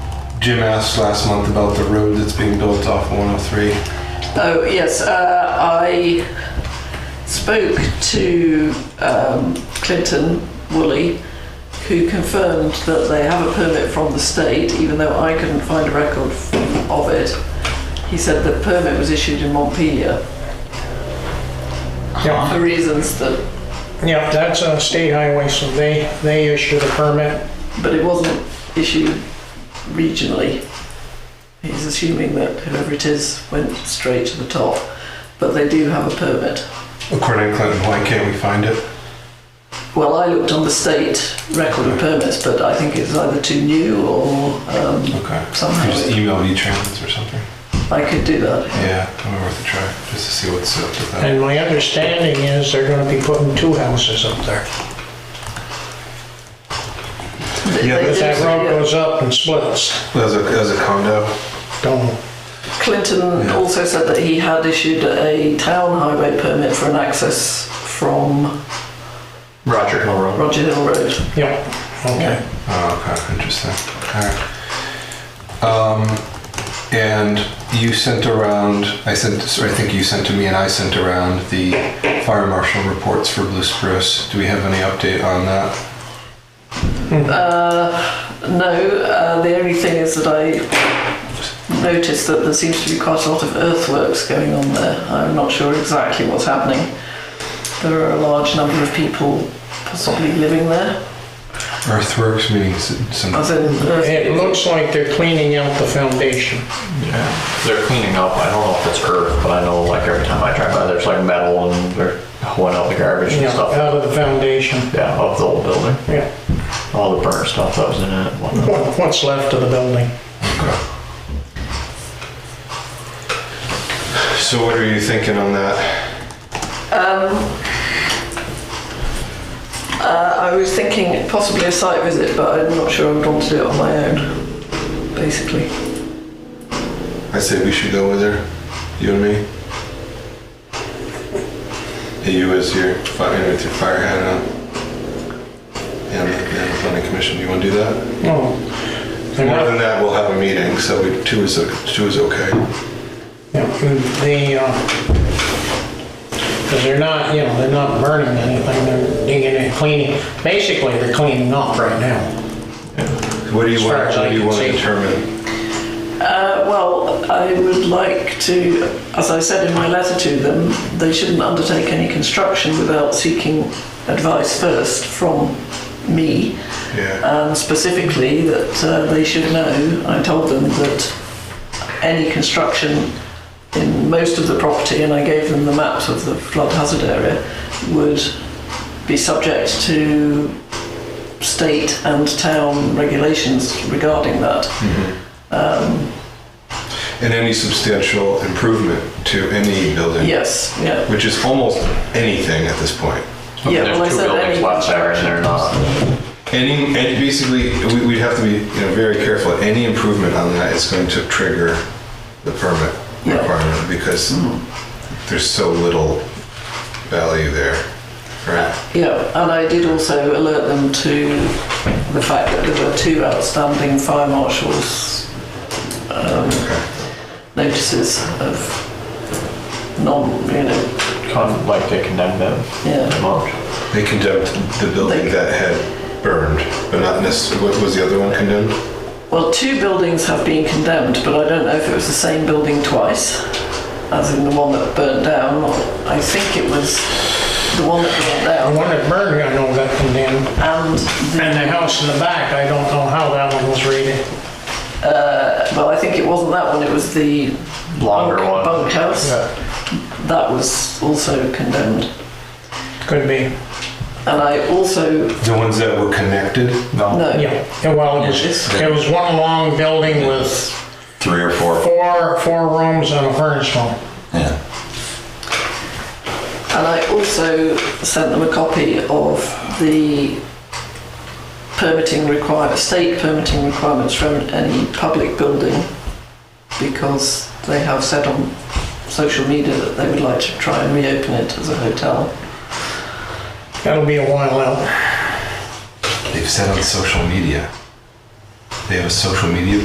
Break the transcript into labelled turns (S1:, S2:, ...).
S1: Jim asked last month about the road that's being built off 103.
S2: Oh, yes, uh, I spoke to um, Clinton Woolley, who confirmed that they have a permit from the state, even though I couldn't find a record of it. He said the permit was issued in Montpelier
S3: Yeah,
S2: for reasons that,
S3: yeah, that's a state highway, so they, they issue the permit.
S2: but it wasn't issued regionally. He's assuming that whoever it is went straight to the top, but they do have a permit.
S1: According to Clinton, why can't we find it?
S2: Well, I looked on the state record of permits, but I think it's either too new or um,
S1: Okay.
S2: somehow
S1: Just
S2: it-
S1: email E-Trans or something.
S2: I could do that.
S1: Yeah, I'm worth a try just to see what's up with that.
S3: And my understanding is they're gonna be putting two houses up there.
S2: They-
S1: Yeah,
S2: they
S3: But
S2: did
S3: that
S2: say,
S3: road
S2: yeah.
S3: goes up and splits.
S1: As a, as a condo.
S3: Don't, know.
S2: Clinton
S1: Yeah.
S2: also said that he had issued a town highway permit for an access from
S4: Roger Hill Road.
S2: Roger Hill Road.
S3: yeah, okay.
S1: Oh, okay, interesting. All right. Um, and you sent around, I sent, sorry, I think you sent to me and I sent around the fire marshal reports for Blue Spruce. Do we have any update on that?
S2: No, uh, the only thing is that I noticed that there seems to be quite a lot of earthworks going on there. I'm not sure exactly what's happening. There are a large number of people possibly living there.
S1: Earthworks, meaning s- some,
S2: As in, uh,
S3: It looks like they're cleaning out the foundation.
S4: Yeah. They're cleaning up. I don't know if it's earth, but I know like every time I drive by, there's like metal and they're hoeing out the garbage and
S3: Yeah,
S4: stuff.
S3: out of the foundation,
S4: Yeah, of the old building.
S3: yeah.
S4: All the burnt stuff that was in it. and whatnot.
S3: What- What's left of the building.
S1: so what are you thinking on that?
S2: Um, uh, I was thinking possibly a site visit, but I'm not sure I would want to do it on my own, basically.
S1: I say we should go with her, you and me. Hey, You as your fire, with your fire hat on. And the, and the planning commission, you wanna do that?
S3: Oh, they're
S1: More
S3: not-
S1: than that, we'll have a meeting, so we- two is, uh, two is okay.
S3: Yeah, the, uhbecause because they're not, you know, they're not burning anything, they're digging and cleaning, basically, they're cleaning up right now.
S1: What do you
S3: As far
S1: want,
S3: as I
S1: what do you
S3: can
S1: want to
S3: see.
S1: determine?
S2: Uh, well, I would like to, as I said in my letter to them, they shouldn't undertake any construction without seeking advice first from me.
S1: Yeah,
S2: and Um, specifically that uh, they should know, I told them that any construction in most of the property, and I gave them the maps of the flood hazard area, would be subject to state and town regulations regarding that.
S1: and any substantial improvement to any building,
S2: Yes, yeah.
S1: which is almost anything at this point.
S2: Yeah,
S4: there's
S2: well, I
S4: two
S2: said
S4: buildings
S2: any
S4: left there and they're not.
S1: Any, and basically, we- we'd have to be, you know, very careful, any improvement on that is going to trigger the permit
S2: Yeah. Hmm.
S1: requirement, because there's so little value there, right?
S2: Yeah, and I did also alert them to the fact that there were two outstanding fire marshals um,
S1: Okay.
S2: notices of non, you know,
S4: Con- like they condemned them.
S2: yeah,
S4: Demolished.
S1: They condemned the building
S2: Like-
S1: that had burned, but not necessarily, what was the other one condemned?
S2: Well, two buildings have been condemned, but I don't know if it was the same building twice, as in the one that burnt down, or I think it was the one that burnt
S3: The
S2: down,
S3: one that burned, I know got condemned,
S2: and the,
S3: and the house in the back, I don't know how that one was rated.
S2: well, I think it wasn't that one, it was the
S4: Longer
S2: bunk-
S4: one.
S2: bunkhouse. That was also condemned.
S3: Could be,
S2: And I also,
S1: The ones that were connected?
S2: no,
S3: yeah, Yeah, well, it was, it was one long building with
S5: three or four.
S3: four, four rooms and a furnace home.
S5: Yeah.
S2: and I also sent them a copy of the permitting requirement, state permitting requirements from any public building, because they have said on social media that they would like to try and reopen it as a hotel.
S3: That'll be a while out.
S1: They've said on social media. They have a social media